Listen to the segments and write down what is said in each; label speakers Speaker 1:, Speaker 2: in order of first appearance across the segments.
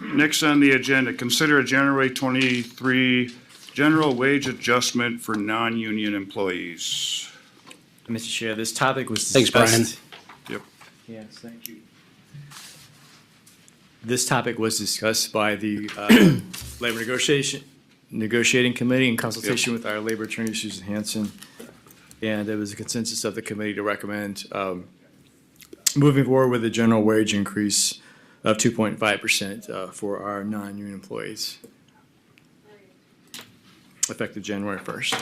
Speaker 1: Next on the agenda, consider a January twenty-three general wage adjustment for non-union employees.
Speaker 2: Mr. Chair, this topic was
Speaker 3: Thanks,
Speaker 2: discussed.
Speaker 3: Brian.
Speaker 1: Yep.
Speaker 2: Yes, thank you. This topic was discussed by the uh, Labor Negotiation, Negotiating Committee in consultation with our labor attorney, Susan Hanson. And there was a consensus of the committee to recommend um, moving forward with a general wage increase of two point five percent uh, for our non-union employees. Effective January first.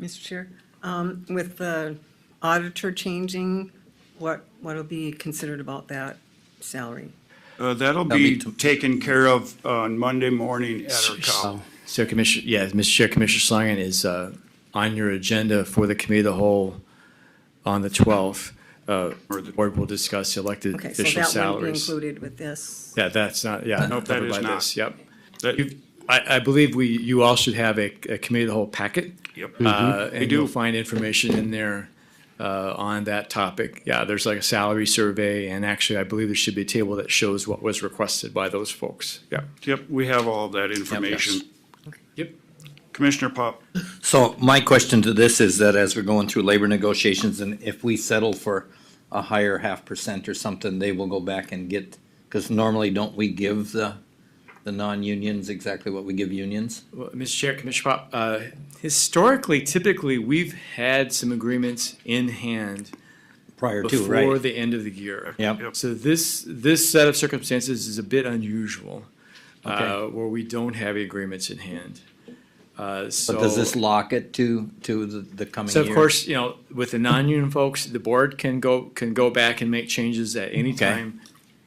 Speaker 4: Mr. Chair, um, with the auditor changing, what, what'll be considered about that salary?
Speaker 1: Uh, that'll
Speaker 3: be
Speaker 1: be
Speaker 3: to-
Speaker 1: taken care of on Monday morning at our call.
Speaker 2: So Commissioner, yeah, Mr. Chair, Commissioner Schlangen is uh, on your agenda for the committee of the whole on the 12th. Uh,
Speaker 1: Or the-
Speaker 2: Board will discuss elected
Speaker 4: Okay, so
Speaker 2: official
Speaker 4: that wouldn't be
Speaker 2: salaries.
Speaker 4: included with this.
Speaker 2: Yeah, that's not, yeah.
Speaker 1: Nope, that
Speaker 2: covered
Speaker 1: is
Speaker 2: by
Speaker 1: not.
Speaker 2: this, Yep.
Speaker 1: That-
Speaker 2: You- I, I believe we, you all should have a a committee of the whole packet.
Speaker 1: Yep.
Speaker 2: Uh,
Speaker 1: We
Speaker 2: And
Speaker 1: do.
Speaker 2: you'll find information in there uh, on that topic. Yeah, there's like a salary survey, and actually, I believe there should be a table that shows what was requested by those folks. Yeah.
Speaker 1: Yep, we have all of that information.
Speaker 2: Yep.
Speaker 1: Commissioner Pop,
Speaker 3: So my question to this is that as we're going through labor negotiations and if we settle for a higher half percent or something, they will go back and get, because normally don't we give the, the non-unions exactly what we give unions?
Speaker 2: Well, Mr. Chair, Commissioner Pop, uh, historically, typically, we've had some agreements in hand
Speaker 3: Prior to,
Speaker 2: before
Speaker 3: right?
Speaker 2: the end of the year.
Speaker 3: Yep.
Speaker 2: So this, this set of circumstances is a bit unusual, uh, where we don't have agreements in hand. Uh, so.
Speaker 3: But does this lock it to, to the, the coming
Speaker 2: So
Speaker 3: year?
Speaker 2: of course, you know, with the non-union folks, the board can go, can go back and make changes at any
Speaker 3: Okay.
Speaker 2: time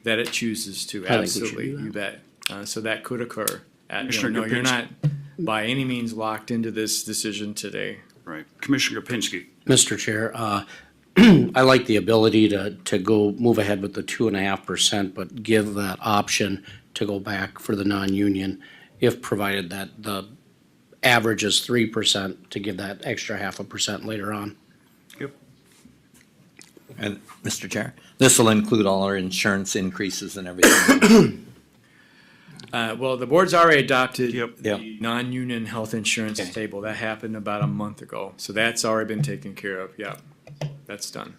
Speaker 2: that it chooses to,
Speaker 5: think we should
Speaker 2: absolutely,
Speaker 5: do that.
Speaker 2: you bet. Uh, so that could occur. At, you
Speaker 1: Commissioner
Speaker 2: know, no, you're not
Speaker 1: Gopinski.
Speaker 2: by any means locked into this decision today.
Speaker 1: right, Commissioner Kapinski.
Speaker 5: Mr. Chair, uh, I like the ability to, to go, move ahead with the two and a half percent, but give that option to go back for the non-union if provided that the average is three percent to give that extra half a percent later on.
Speaker 1: Yep.
Speaker 3: And, Mr. Chair, this will include all our insurance increases and everything.
Speaker 2: Uh, well, the board's already adopted
Speaker 1: Yep.
Speaker 3: Yep.
Speaker 2: the non-union health insurance
Speaker 3: Okay.
Speaker 2: table. That happened about a month ago. So that's already been taken care of. Yeah, that's done.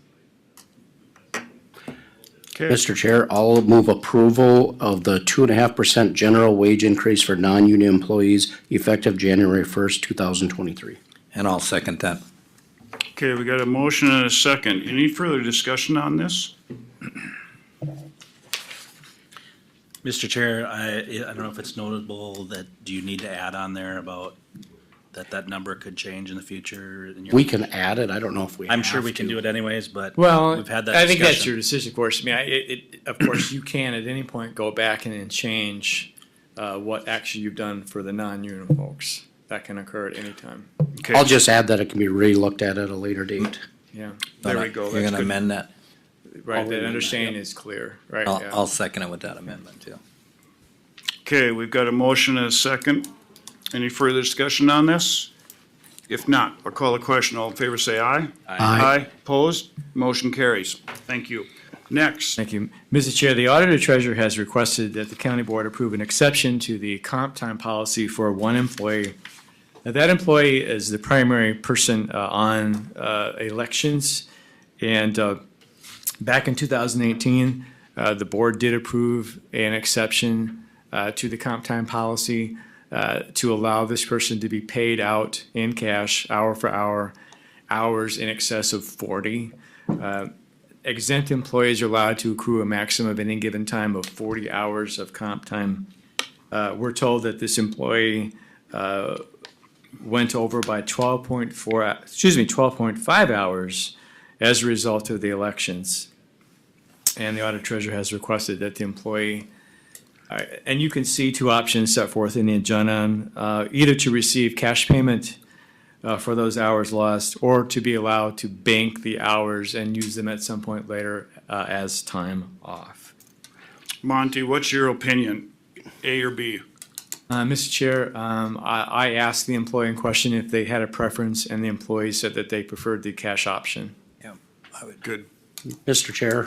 Speaker 1: Okay,
Speaker 5: Mr. Chair, I'll move approval of the two and a half percent general wage increase for non-union employees effective January first, two thousand twenty-three.
Speaker 3: And I'll second that.
Speaker 1: okay, we got a motion and a second. Any further discussion on this?
Speaker 6: Mr. Chair, I, I don't know if it's notable that, do you need to add on there about that that number could change in the future? in your-
Speaker 5: We can add it. I don't know if we
Speaker 6: I'm sure
Speaker 5: have
Speaker 6: we can
Speaker 5: to.
Speaker 6: do it anyways, but
Speaker 2: Well,
Speaker 6: we've had that
Speaker 2: I think that's your
Speaker 6: discussion.
Speaker 2: decision, of course. I mean, I, it, it, of course, you can at any point go back and, and change uh, what action you've done for the non-union folks. That can occur at any time.
Speaker 1: Okay,
Speaker 5: I'll just add that it can be relooked at at a later date.
Speaker 2: Yeah,
Speaker 1: There we go,
Speaker 3: You're
Speaker 1: that's
Speaker 3: gonna
Speaker 1: good.
Speaker 3: amend that?
Speaker 2: right. That
Speaker 5: remember,
Speaker 2: understanding is clear, right?
Speaker 3: I'll,
Speaker 2: yeah.
Speaker 3: I'll second it with that amendment too.
Speaker 1: Okay, we've got a motion and a second. Any further discussion on this? If not, I'll call the question. All in favor, say aye.
Speaker 5: Aye.
Speaker 1: Opposed? Motion carries. Thank you. Next,
Speaker 2: Thank you. Mrs. Chair, the Auditor Treasurer has requested that the County Board approve an exception to the comp time policy for one employee. Now, That employee is the primary person uh, on uh, elections. And uh, back in 2018, uh, the Board did approve an exception uh, to the comp time policy uh, to allow this person to be paid out in cash, hour for hour, hours in excess of 40 exempt employees are allowed to accrue a maximum of any given time of forty hours of comp time. Uh, we're told that this employee, uh, went over by twelve point four, excuse me, twelve point five hours as a result of the elections. And the audit treasurer has requested that the employee, all right, and you can see two options set forth in the agenda, uh, either to receive cash payment uh, for those hours lost, or to be allowed to bank the hours and use them at some point later uh, as time off.
Speaker 1: Monty, what's your opinion? A or B?
Speaker 2: Uh, Mr. Chair, um, I, I asked the employee in question if they had a preference, and the employee said that they preferred the cash option.
Speaker 3: Yeah, I would
Speaker 1: Good.
Speaker 5: Mr. Chair,